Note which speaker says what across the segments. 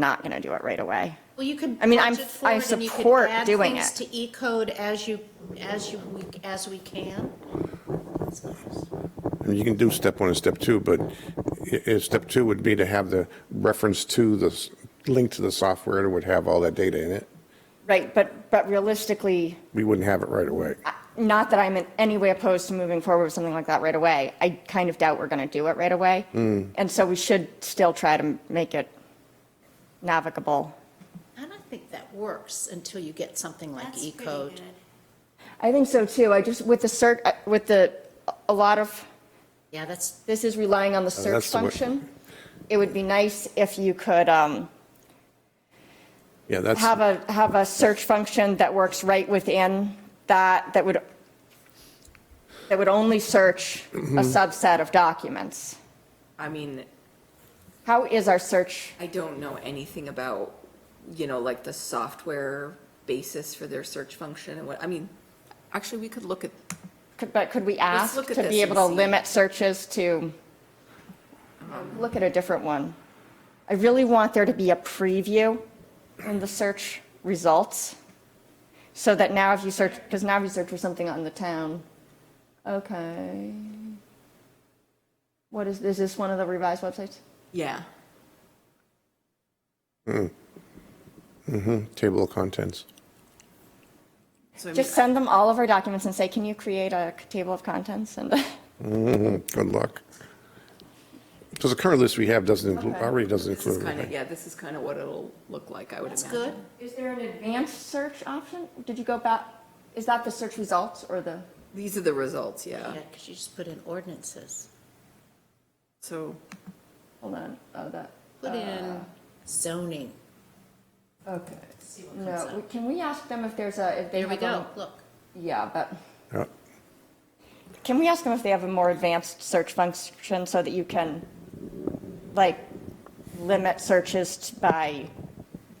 Speaker 1: not going to do it right away.
Speaker 2: Well, you could
Speaker 1: I mean, I'm-
Speaker 2: budget for
Speaker 1: I
Speaker 2: it and you could
Speaker 1: support
Speaker 2: add
Speaker 1: doing
Speaker 2: things
Speaker 1: it.
Speaker 2: To E-code as you, as you, we- as we can.
Speaker 3: I mean, You can do step one and step two, but i- if step two would be to have the reference to the, s- link to the software that would have all that data in it,
Speaker 1: Right, but, but realistically,
Speaker 3: we wouldn't have it right away.
Speaker 1: not that I'm in any way opposed to moving forward with something like that right away. I kind of doubt we're going to do it right away.
Speaker 3: Hmm.
Speaker 1: And so we should still try to make it navigable.
Speaker 2: I don't think that works until you get something like
Speaker 4: That's pretty
Speaker 2: E-code.
Speaker 4: good.
Speaker 1: I think so too. I just, with the search, with the, a lot of,
Speaker 2: Yeah, that's,
Speaker 1: this is relying on the search
Speaker 3: Oh, that's the way-
Speaker 1: function. It would be nice if you could um,
Speaker 3: Yeah, that's,
Speaker 1: have a, have a search function that works right within that, that would, that would only search a subset of documents.
Speaker 5: I mean,
Speaker 1: How is our search?
Speaker 5: I don't know anything about, you know, like the software basis for their search function and what, I mean, actually, we could look at,
Speaker 1: Could- But could we
Speaker 5: Let's
Speaker 1: ask
Speaker 5: look at
Speaker 1: to be
Speaker 5: this
Speaker 1: able to
Speaker 5: and see.
Speaker 1: limit searches to, look at a different one? I really want there to be a preview in the search results, so that now if you search, because now if you search for something on the town, okay. What is, is this one of the revised websites?
Speaker 5: yeah,
Speaker 3: table of contents.
Speaker 5: so I mean,
Speaker 1: Just send them all of our documents and say, can you create a table of contents? And
Speaker 3: Mm-hmm, Good luck. Because the current list we have doesn't include, already doesn't
Speaker 5: this is
Speaker 3: include
Speaker 5: kind of,
Speaker 3: everything.
Speaker 5: yeah, this is kind of what it'll look like, I would
Speaker 2: that's
Speaker 5: imagine.
Speaker 2: good.
Speaker 1: Is there an advanced search option? Did you go back, is that the search results or the?
Speaker 5: These are the results,
Speaker 2: Yeah,
Speaker 5: yeah,
Speaker 2: because you just put in ordinances.
Speaker 5: so,
Speaker 1: Hold on, oh, that,
Speaker 2: Put in Uh, zoning.
Speaker 1: okay.
Speaker 2: See what comes
Speaker 1: No,
Speaker 2: up.
Speaker 1: we- can we ask them if there's a, if they
Speaker 2: There
Speaker 1: have
Speaker 2: we
Speaker 1: a?
Speaker 2: go, look.
Speaker 1: Yeah, but,
Speaker 3: Yeah.
Speaker 1: can we ask them if they have a more advanced search function so that you can, like, limit searches t- by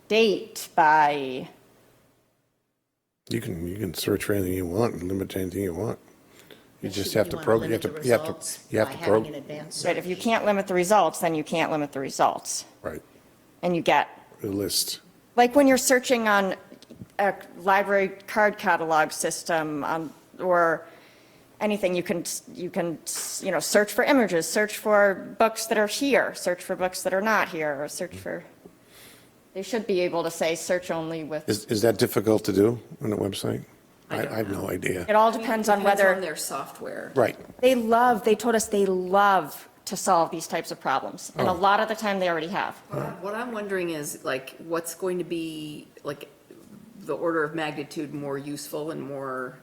Speaker 1: date, by,
Speaker 3: You can, you can search for anything you want and limit to anything you want. You just have to
Speaker 2: wanna
Speaker 3: program, you have
Speaker 2: limit
Speaker 3: to,
Speaker 2: the
Speaker 3: you have to,
Speaker 2: results
Speaker 3: you have
Speaker 2: by
Speaker 3: to
Speaker 2: having an
Speaker 3: program.
Speaker 2: advanced
Speaker 1: right, if you
Speaker 2: search.
Speaker 1: can't limit the results, then you can't limit the results.
Speaker 3: Right,
Speaker 1: And you get
Speaker 3: the list.
Speaker 1: Like when you're searching on a library card catalog system um, or anything, you can, you can, you know, search for images, search for books that are here, search for books that are not here, or search for, they should be able to say, search only with,
Speaker 3: Is, is that difficult to do on the website? I, I have no
Speaker 1: it
Speaker 3: idea.
Speaker 1: all
Speaker 5: I mean, it
Speaker 1: depends on
Speaker 5: Depends on
Speaker 1: whether,
Speaker 5: their software.
Speaker 3: Right,
Speaker 1: they love, they told us they love to solve these types of problems. And a
Speaker 3: Oh.
Speaker 1: lot of the time, they already have.
Speaker 5: What I- What I'm wondering is, like, what's going to be, like, the order of magnitude more useful and more,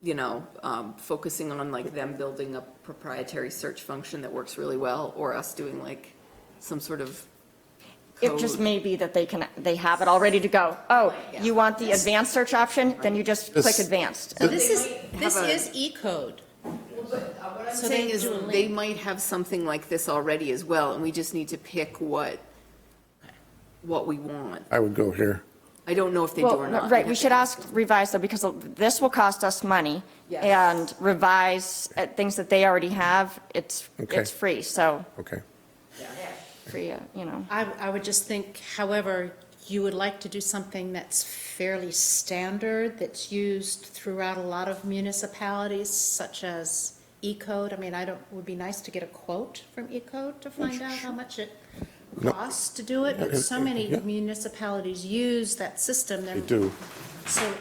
Speaker 5: you know, um, focusing on like them building a proprietary search function that works really well, or us doing like some sort of
Speaker 1: It just
Speaker 5: code.
Speaker 1: may be that they can, they have it all ready to go. Oh,
Speaker 5: Yeah.
Speaker 1: you want the advanced search option? Then you just click
Speaker 3: This-
Speaker 1: advanced.
Speaker 2: So this is,
Speaker 5: might
Speaker 2: this
Speaker 5: have a-
Speaker 2: is E-code.
Speaker 5: So they, is they might have something like this already as well, and we just need to pick what, what we want.
Speaker 3: I would go here.
Speaker 5: I don't know if they do
Speaker 1: Well,
Speaker 5: or
Speaker 1: no,
Speaker 5: not.
Speaker 1: Right, we should ask revise though, because this will cost us money.
Speaker 5: Yes.
Speaker 1: And revise at things that they already have, it's,
Speaker 3: Okay.
Speaker 1: it's free, so,
Speaker 3: Okay.
Speaker 1: free, uh, you know.
Speaker 2: I, I would just think, however, you would like to do something that's fairly standard, that's used throughout a lot of municipalities, such as E-code. I mean, I don't, it would be nice to get a quote from E-code to find out how much it costs to do it, but so many
Speaker 3: Oh, Yeah.
Speaker 2: municipalities use that system,
Speaker 3: They
Speaker 2: they're
Speaker 3: do.
Speaker 2: so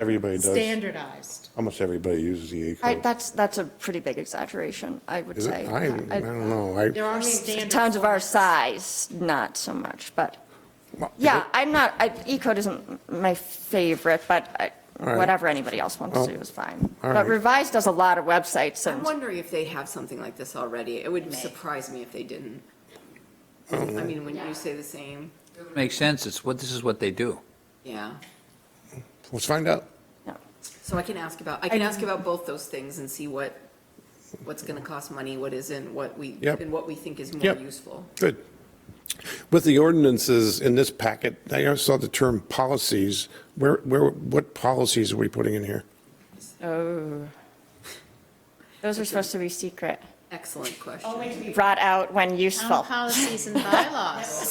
Speaker 3: Everybody does.
Speaker 2: standardized.
Speaker 3: Almost everybody uses the E
Speaker 1: I,
Speaker 3: code.
Speaker 1: that's, that's a pretty big exaggeration, I would
Speaker 3: Is it?
Speaker 1: say.
Speaker 3: I, I
Speaker 1: I-
Speaker 3: don't know. I,
Speaker 2: There are standard.
Speaker 1: Towns of our
Speaker 2: formats.
Speaker 1: size, not so much, but,
Speaker 3: well,
Speaker 1: yeah, I'm not, I, E-code isn't my favorite, but I-
Speaker 3: right.
Speaker 1: whatever anybody else wants to do is fine.
Speaker 3: all
Speaker 1: But
Speaker 3: right.
Speaker 1: revise does a lot of websites
Speaker 5: I'm
Speaker 1: and,
Speaker 5: wondering if they have something like this already. It would surprise me if they didn't. I mean, when you say the same,
Speaker 6: Makes sense, it's what, this is what they do.
Speaker 5: yeah.
Speaker 3: Let's find out.
Speaker 1: yeah.
Speaker 5: So I can ask about, I can ask about both those things and see what, what's gonna cost money, what isn't, what we,
Speaker 3: Yep.
Speaker 5: and what we think is more
Speaker 3: Yep.
Speaker 5: useful.
Speaker 3: Good. With the ordinances in this packet, I also saw the term policies. Where, where, what policies are we putting in here?
Speaker 1: Oh. Those are supposed to be secret.
Speaker 5: Excellent question.
Speaker 1: Brought out when
Speaker 2: Town
Speaker 1: useful.
Speaker 2: policies and bylaws.